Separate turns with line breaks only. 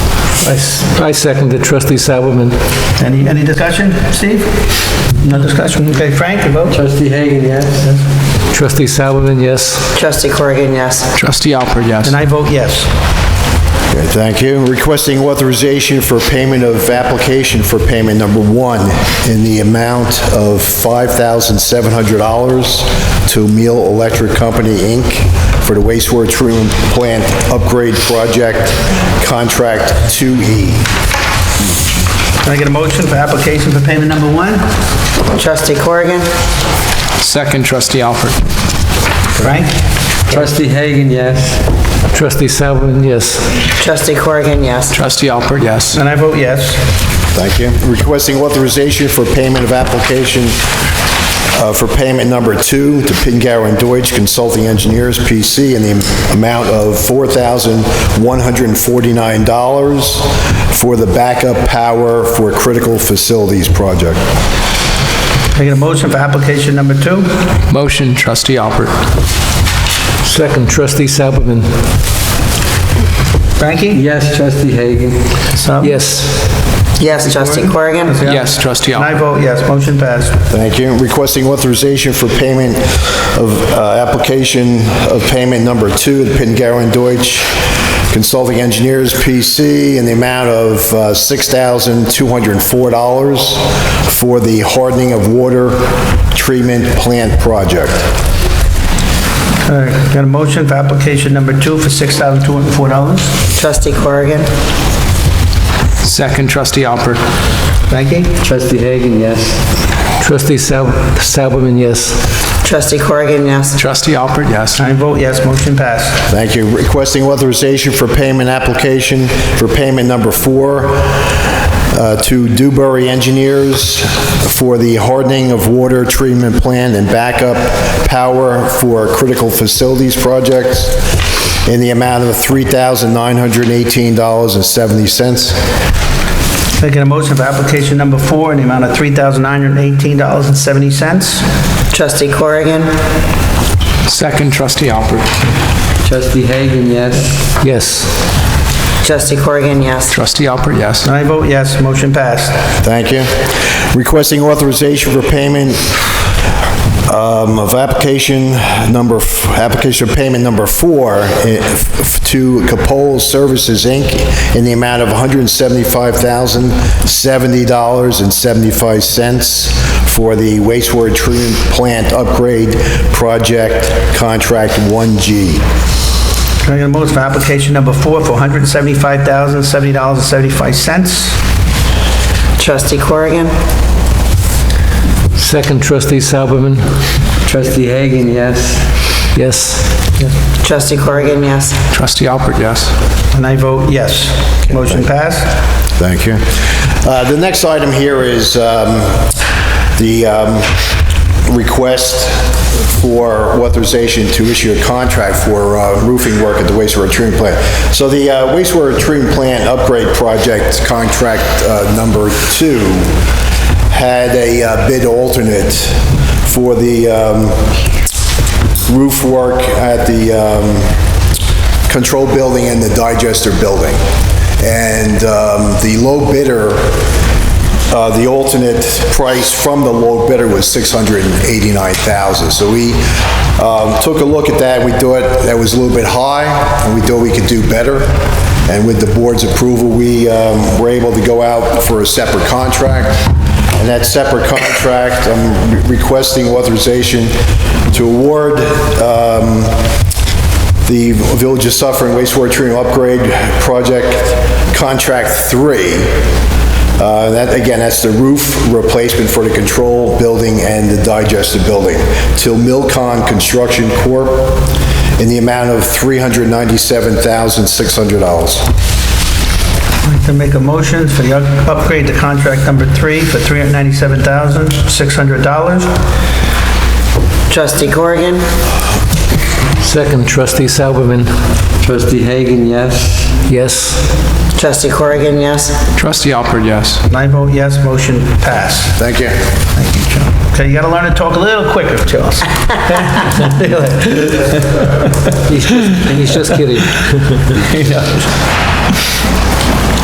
I s- I second the trustee Salomon.
Any, any discussion, Steve? No discussion? Okay, Frank, you vote?
Trustee Hagan, yes.
Trustee Salomon, yes.
Trustee Corrigan, yes.
Trustee Alpert, yes.
And I vote yes.
Okay, Thank you. Requesting authorization for payment of application for payment number one in the amount of $5,700 to Meal Electric Company, Inc. for the wastewater treatment plant upgrade project, contract E. 2E.
Can I get a motion for application for payment number one?
Trustee Corrigan,
Second, trustee Alpert.
Frank?
Trustee Hagan, yes.
Trustee Salomon, yes.
Trustee Corrigan, yes.
Trustee Alpert, yes.
And I vote yes.
Thank you. Requesting authorization for payment of application uh, for payment number two to Pingarrow and Deutsch Consulting Engineers, PC, in the amount of $4,149 for the backup power for critical facilities project.
Can I get a motion for application number two?
Motion, trustee Alpert.
Second, trustee Salomon,
Frankie?
Yes, trustee Hagan.
Some?
yes.
Yes, Trustee Corrigan.
Yes, trustee
And I
Alpert.
vote yes, motion passed.
Thank you. Requesting authorization for payment of, uh, application of payment number two to Pingarrow and Deutsch Consulting Engineers, PC, in the amount of uh, $6,204 for the hardening of water treatment plant project.
All right, got a motion for application number two for $6,204?
Trustee Corrigan,
Second, trustee Alpert.
Frankie?
Trustee Hagan, yes.
Trustee Sal- Salomon, yes.
Trustee Corrigan, yes.
Trustee Alpert, yes.
I vote yes, motion passed.
Thank you. Requesting authorization for payment application for payment number four uh, to Dewberry Engineers for the hardening of water treatment plant and backup power for critical facilities projects in the amount of $3,918.70.
Can I get a motion for application number four in the amount of $3,918.70?
Trustee Corrigan,
Second, trustee Alpert.
Trustee Hagan, yes.
Yes.
Trustee Corrigan, yes.
Trustee Alpert, yes.
And I vote yes, motion passed.
Thank you. Requesting authorization for payment um, of application number, f- application of payment number four eh, f- to Capole Services, Inc., in the amount of $175,070.75 for the wastewater treatment plant upgrade project contract 1G.
Can I get a motion for application number four for $175,070.75?
Trustee Corrigan,
Second, trustee Salomon,
Trustee Hagan, yes.
yes.
Trustee Corrigan, yes.
Trustee Alpert, yes.
And I vote yes, motion passed.
Thank you. Uh, The next item here is um, the um, request for authorization to issue a contract for uh, roofing work at the wastewater treatment plant. So the uh, wastewater treatment plant upgrade project contract uh, number two had a uh, bid alternate for the um, roof work at the um, control building and the digester building. And um, the low bidder, uh, the alternate price from the low bidder was $689,000. So we um, took a look at that, we thought that was a little bit high, and we thought we could do better. And with the board's approval, we um, were able to go out for a separate contract. And that separate contract, I'm requesting authorization to award um, the Village of Suffering wastewater treatment upgrade project contract three. Uh, That, again, that's the roof replacement for the control building and the digestive building. Till Milcon Construction Corp. in the amount of $397,600.
I'd like to make a motion for the up- upgrade to contract number three for $397,600.
Trustee Corrigan,
Second, trustee Salomon,
Trustee Hagan, yes.
yes.
Trustee Corrigan, yes.
Trustee Alpert, yes.
And I vote yes, motion passed.
Thank you.
Okay, you gotta learn to talk a little quicker, Charles.
He's just he's just kidding.